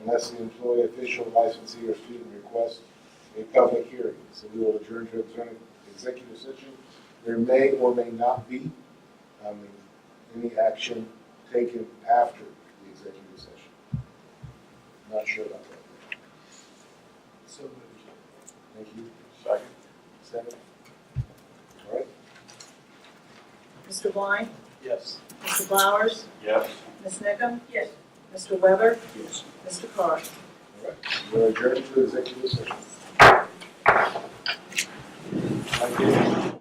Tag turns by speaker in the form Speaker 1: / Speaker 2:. Speaker 1: unless the employee, official, licensee, or student requests a public hearing. So we will adjourn to exec- executive session. There may or may not be um, any action taken after the executive session. Not sure about that.
Speaker 2: So moved.
Speaker 1: Thank you. Second. Second. All right.
Speaker 3: Mr. Blind?
Speaker 2: Yes.
Speaker 3: Mr. Flowers?
Speaker 4: Yes.
Speaker 3: Ms. Nickum? Yes. Mr. Weber?
Speaker 2: Yes.
Speaker 3: Mr. Carr?
Speaker 1: All right. We're adjourned to executive session. Thank you.